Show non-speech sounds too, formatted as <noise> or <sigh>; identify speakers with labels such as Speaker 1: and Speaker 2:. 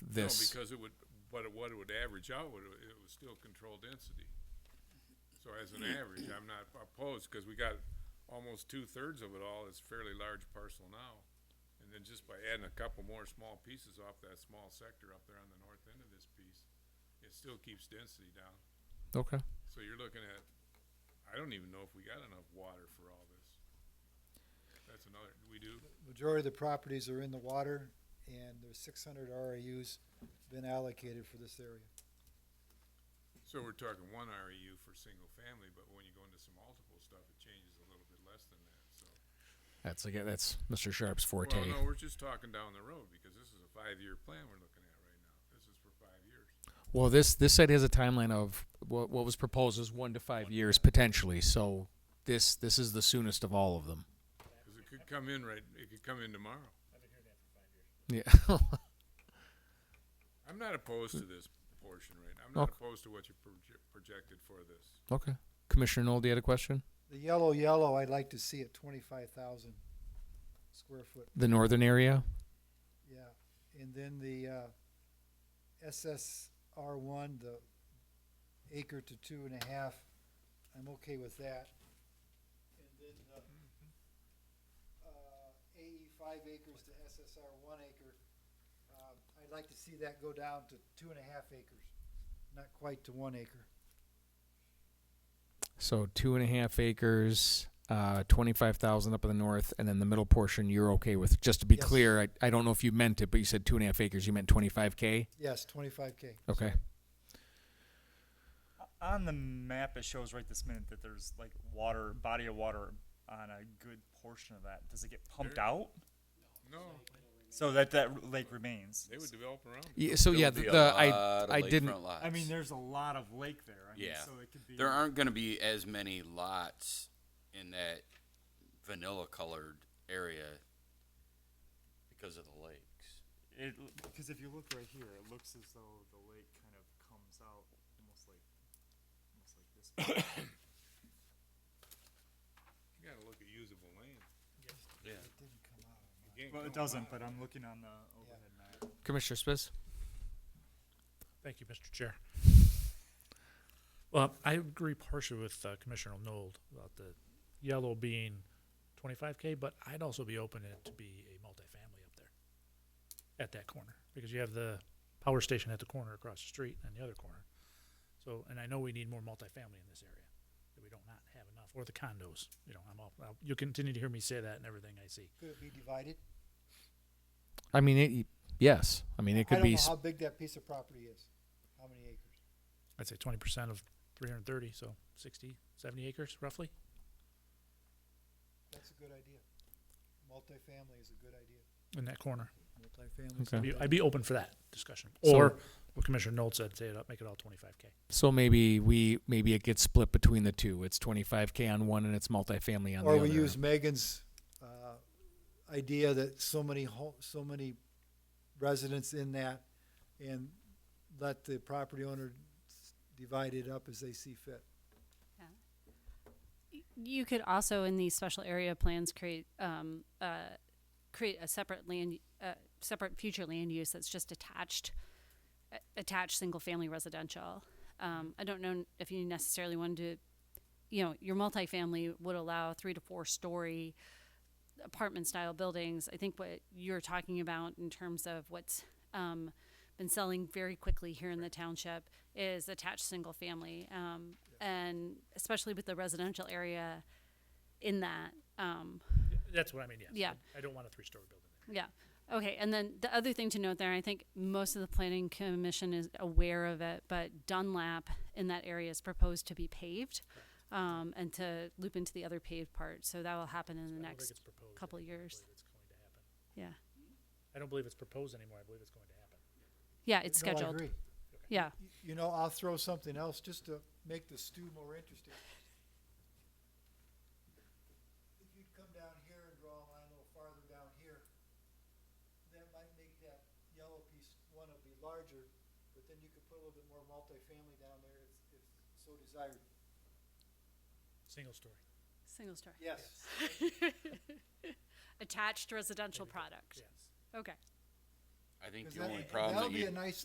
Speaker 1: this.
Speaker 2: No, because it would, but it- what it would average out, would it was still controlled density. So as an average, I'm not opposed, because we got almost two-thirds of it all, it's fairly large parcel now. And then just by adding a couple more small pieces off that small sector up there on the north end of this piece, it still keeps density down.
Speaker 1: Okay.
Speaker 2: So you're looking at, I don't even know if we got enough water for all this. That's another, we do?
Speaker 3: Majority of the properties are in the water, and there's six hundred RAUs been allocated for this area.
Speaker 2: So we're talking one REU for single family, but when you go into some multiple stuff, it changes a little bit less than that, so.
Speaker 1: That's again. That's Mr. Sharp's forte.
Speaker 2: Well, no, we're just talking down the road, because this is a five-year plan we're looking at right now. This is for five years.
Speaker 1: Well, this this site has a timeline of what what was proposed is one to five years potentially. So this this is the soonest of all of them.
Speaker 2: Cause it could come in right, it could come in tomorrow.
Speaker 1: Yeah. <laughs>
Speaker 2: I'm not opposed to this portion right now. I'm not
Speaker 1: Okay.
Speaker 2: opposed to what you proje- projected for this.
Speaker 1: okay. Commissioner Nold, you had a question?
Speaker 3: The yellow, yellow, I'd like to see at twenty-five thousand square foot,
Speaker 1: The northern area.
Speaker 3: yeah. And then the, uh, SSR one, the acre to two and a half, I'm okay with that. And then the, uh, AE five acres to SSR one acre, uh, I'd like to see that go down to two and a half acres, not quite to one acre.
Speaker 1: So two and a half acres, uh, twenty-five thousand up in the north, and then the middle portion you're okay with. Just to be
Speaker 3: Yes.
Speaker 1: clear, I, I don't know if you meant it, but you said two and a half acres. You meant twenty-five k.
Speaker 3: Yes, twenty-five K.
Speaker 1: Okay.
Speaker 4: On the map, it shows right this minute that there's like water, body of water on a good portion of that. Does it get pumped
Speaker 2: There-
Speaker 4: out?
Speaker 2: No,
Speaker 4: So that that r- lake remains.
Speaker 2: they would develop around. it.
Speaker 1: Yeah, so
Speaker 5: There
Speaker 1: yeah,
Speaker 5: will
Speaker 1: the,
Speaker 5: be a
Speaker 1: the I
Speaker 5: lot of
Speaker 1: I
Speaker 5: lakefront
Speaker 1: didn't.
Speaker 5: lots.
Speaker 4: I mean, there's a lot of lake there. I mean,
Speaker 5: Yeah.
Speaker 4: So it could be.
Speaker 5: there aren't going to be as many lots in that vanilla colored area because of the lakes.
Speaker 4: It because if you look right here, it looks as though the lake kind of comes out almost like almost like this.
Speaker 2: <laughs>
Speaker 4: way.
Speaker 2: You gotta look at usable land.
Speaker 5: Yeah.
Speaker 3: Didn't come out.
Speaker 2: You can't
Speaker 4: well, it
Speaker 2: go
Speaker 4: doesn't.
Speaker 2: by.
Speaker 4: But I'm looking on the overhead map.
Speaker 1: Commissioner Spitz.
Speaker 6: Thank you, Mr. Chair. Well, I agree partially with uh, Commissioner Nold about the yellow being twenty-five K, but I'd also be open it to be a multifamily up there at that corner, because you have the power station at the corner across the street and the other corner. So, and I know we need more multifamily in this area, that we don't not have enough, or the condos, you know, I'm all, I'll- you'll continue to hear me say that in everything I see.
Speaker 3: Could it be divided?
Speaker 1: I mean, it, yes. I mean, it
Speaker 3: I
Speaker 1: could
Speaker 3: don't
Speaker 1: be.
Speaker 3: know
Speaker 1: s-
Speaker 3: how big that piece of property is, how many acres.
Speaker 6: I'd say twenty percent of three hundred and thirty, so 60, 70 acres roughly.
Speaker 3: That's a good idea. Multifamily is a good idea.
Speaker 6: in that
Speaker 3: Multifamily.
Speaker 6: corner.
Speaker 1: Okay.
Speaker 6: I'd be, I'd be open for that discussion.
Speaker 1: So-
Speaker 6: Or what Commissioner Nolt said, say it up, make it all twenty-five K.
Speaker 1: So maybe we maybe it gets split between the two. It's 25k on one and it's multifamily on
Speaker 3: Or
Speaker 1: the other.
Speaker 3: we use Megan's, uh, idea that so many ho- so many residents in that and let the property owner s- divide it up as they see fit.
Speaker 7: you could also in these special area plans create um, uh, create a separate land uh, separate future land use that's just attached a- attached single family residential um, i don't know if you necessarily wanted to you know your multifamily would allow three to four story apartment style buildings i think what you're talking about in terms of what's um, been selling very quickly here in the township is attached single family um, and especially with the residential area in that um,
Speaker 6: That's what I mean, yes.
Speaker 7: Yeah.
Speaker 6: I don't want a three-story building.
Speaker 7: yeah. Okay. And then the other thing to note there, I think most of the planning commission is aware of it, but Dunlap in that area is proposed to be paved um, and to loop into the other paved part. So that will happen in
Speaker 6: I
Speaker 7: the
Speaker 6: don't think
Speaker 7: next
Speaker 6: it's proposed.
Speaker 7: couple
Speaker 6: I
Speaker 7: of
Speaker 6: don't believe
Speaker 7: years.
Speaker 6: it's going to happen.
Speaker 7: Yeah.
Speaker 6: I don't believe it's proposed anymore. I believe it's going to happen.
Speaker 7: Yeah. It's
Speaker 3: No, I
Speaker 7: scheduled.
Speaker 3: agree.
Speaker 7: Yeah.
Speaker 3: Y- You know, I'll throw something else just to make the stew more interesting. If you'd come down here and draw a line a little farther down here, that might make that yellow piece, one will be larger, but then you could put a little bit more multifamily down there if, if so desired.
Speaker 6: Single story.
Speaker 7: Single story. <laughs>
Speaker 3: Yes.
Speaker 7: Attached residential product.
Speaker 6: Yes.
Speaker 7: Okay.
Speaker 5: I think
Speaker 3: Because
Speaker 5: the
Speaker 3: that-
Speaker 5: only problem
Speaker 3: That'll
Speaker 5: that
Speaker 3: be
Speaker 5: you
Speaker 3: a nice